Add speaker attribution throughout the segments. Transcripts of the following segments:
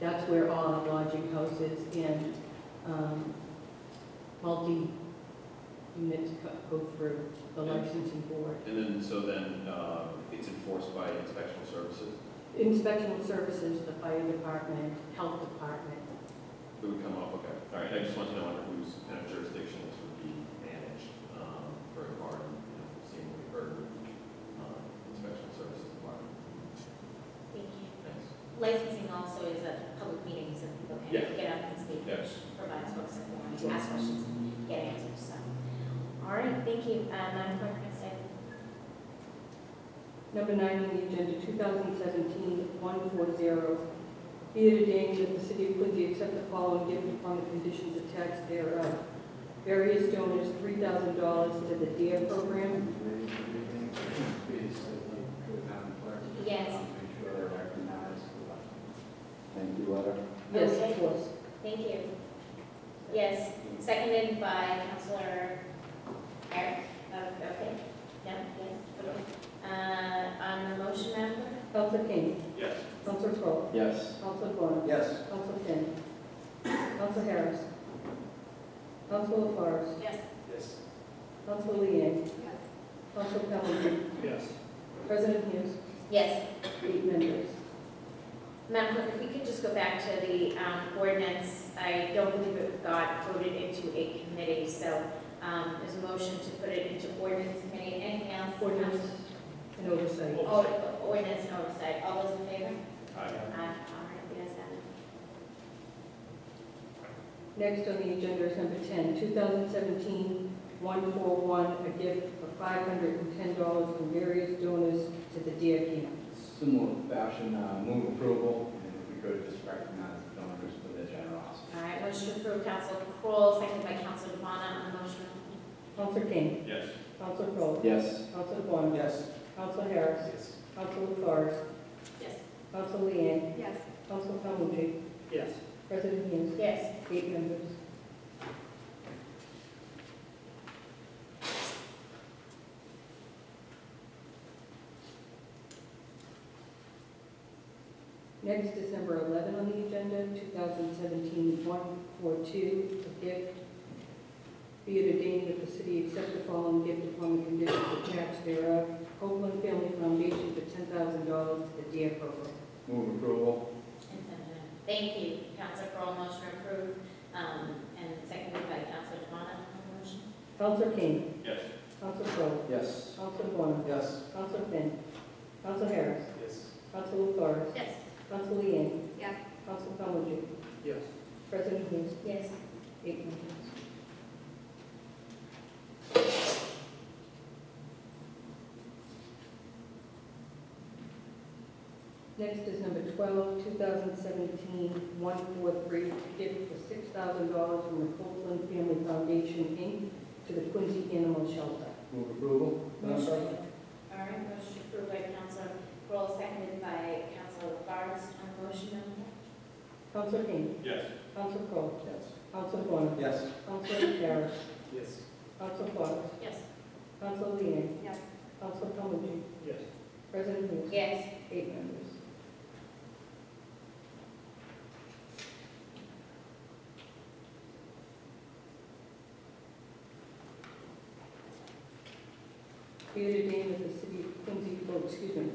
Speaker 1: That's where all the lodging houses and um, multi-units co- go through the licensing board.
Speaker 2: And then, so then, uh, it's enforced by inspectional services,
Speaker 1: Inspection services, the fire department, health department.
Speaker 2: it would come up, okay. All right, I just want to know under whose kind of jurisdiction this would be managed, um, for a garden, you know, seemingly burden, um, inspection services department.
Speaker 3: Thank you.
Speaker 2: Thanks.
Speaker 3: Licensing also is at public meetings and people
Speaker 2: Yeah.
Speaker 3: can get up and speak,
Speaker 2: Yes.
Speaker 3: provide folks with more, ask questions, get answers, so. All right, thank you. Uh, Madam Clerk, can I say?
Speaker 1: Number nine on the agenda, 2017-140. Be it ordained that the city of Quincy accept the following gift upon the conditions attached thereof. Various donors, $3,000 to the DARE E program,
Speaker 3: Yes.
Speaker 4: Make sure they're recognized. Thank you, Letter.
Speaker 1: Yes,
Speaker 3: Okay.
Speaker 1: of course.
Speaker 3: Thank you. Yes, seconded by Councilor Eric. Uh, Okay, no, yes, okay. Uh, On the motion, Madam Clerk?
Speaker 1: Council King,
Speaker 2: Yes.
Speaker 1: Council Crowe,
Speaker 4: Yes.
Speaker 1: Council Vaughn,
Speaker 4: Yes.
Speaker 1: Council Finn, Council Harris, Council LaFars,
Speaker 3: Yes.
Speaker 4: Yes.
Speaker 1: Council Leeang, Council Calhoun,
Speaker 4: Yes.
Speaker 1: President Hughes,
Speaker 3: Yes.
Speaker 1: eight members.
Speaker 3: Madam Clerk, if we could just go back to the um, ordinance, I don't believe it got voted into a committee, so um, there's a motion to put it into ordinance committee. Anything else?
Speaker 1: Ordinance and oversight.
Speaker 3: Oh, Ordinance and oversight. All those in
Speaker 2: Aye.
Speaker 3: favor? Aye. All right, we have that.
Speaker 1: Next on the agenda is number 10, 2017-141, a gift of $510 from various donors to the Deer Camp.
Speaker 4: Similar fashion, uh, move approval, and if we could just recognize the donors for their generosity.
Speaker 3: All right, motion to approve, Council Kroll, seconded by Council Devon on the motion.
Speaker 1: Counsel King,
Speaker 2: Yes.
Speaker 1: Counsel Crowe,
Speaker 4: Yes.
Speaker 1: Counsel Vaughn,
Speaker 4: Yes.
Speaker 1: Counsel Harris,
Speaker 4: Yes.
Speaker 1: Counsel LaFars,
Speaker 3: Yes.
Speaker 1: Counsel Leeang,
Speaker 3: Yes.
Speaker 1: Counsel Calhoun,
Speaker 4: Yes.
Speaker 1: President Hughes,
Speaker 3: Yes.
Speaker 1: eight members. Next is number 11 on the agenda, 2017-142, a gift. Be it ordained that the city accept the following gift upon the conditions attached thereof. Copeland Family Foundation for $10,000 to the DARE program.
Speaker 4: Move approval.
Speaker 3: And seconded. Thank you, Council Kroll, motion approved, um, and seconded by Council Devon on the motion.
Speaker 1: Counselor King,
Speaker 2: Yes.
Speaker 1: Counselor Crowe,
Speaker 4: Yes.
Speaker 1: Counselor Vaughn,
Speaker 4: Yes.
Speaker 1: Counselor Finn, Counselor Harris,
Speaker 4: Yes.
Speaker 1: Council LaFars,
Speaker 3: Yes.
Speaker 1: Council Leeang,
Speaker 3: Yes.
Speaker 1: Council Calhoun,
Speaker 4: Yes.
Speaker 1: President Hughes,
Speaker 3: Yes.
Speaker 1: eight members. Next is number 12, 2017-143, gift for $6,000 from the Copeland Family Foundation, Inc., to the Quincy Animal Shelter.
Speaker 4: Move approval. Madam
Speaker 3: Motion.
Speaker 4: Clerk?
Speaker 3: All right, motion approved by Council Kroll, seconded by Council Barnes on the motion. Madam Clerk?
Speaker 1: Council King,
Speaker 2: Yes.
Speaker 1: Council Crowe,
Speaker 4: Yes.
Speaker 1: Council Vaughn,
Speaker 4: Yes.
Speaker 1: Council Harris,
Speaker 4: Yes.
Speaker 1: Council Fox,
Speaker 3: Yes.
Speaker 1: Council Leeang,
Speaker 3: Yes.
Speaker 1: Council Calhoun,
Speaker 4: Yes.
Speaker 1: President Hughes,
Speaker 3: Yes.
Speaker 1: eight members. Be it ordained that the city of Quincy, oh, excuse me,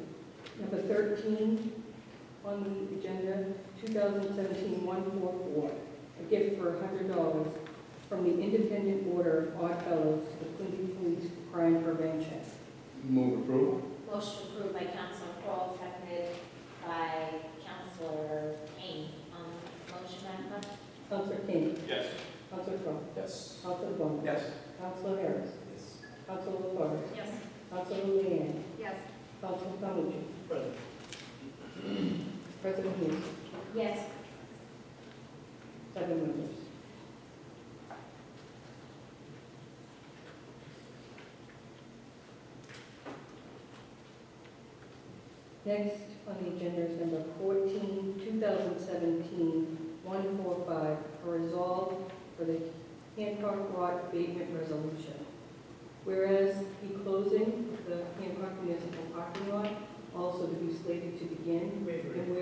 Speaker 1: number 13 on the agenda, 2017-144, a gift for $100 from the Independent Order of Odd Fellows to the Quincy Police Crime Prevention.
Speaker 4: Move approval.
Speaker 3: Motion approved by Council Kroll, seconded by Council Kane on the motion. Madam Clerk?
Speaker 1: Counselor King,
Speaker 2: Yes.
Speaker 1: Counselor Crowe,
Speaker 4: Yes.
Speaker 1: Counselor Vaughn,
Speaker 4: Yes.
Speaker 1: Council Harris,
Speaker 4: Yes.
Speaker 1: Council LaFars,
Speaker 3: Yes.
Speaker 1: Council Leeang,
Speaker 3: Yes.
Speaker 1: Council Calhoun. President Hughes,
Speaker 3: Yes.
Speaker 1: seven members. Next on the agenda is number 14, 2017-145, a resolve for the Hancock Rock abatement resolution. Whereas the closing of the Hancock Municipal Parking Lot also to be slated to begin, and whereas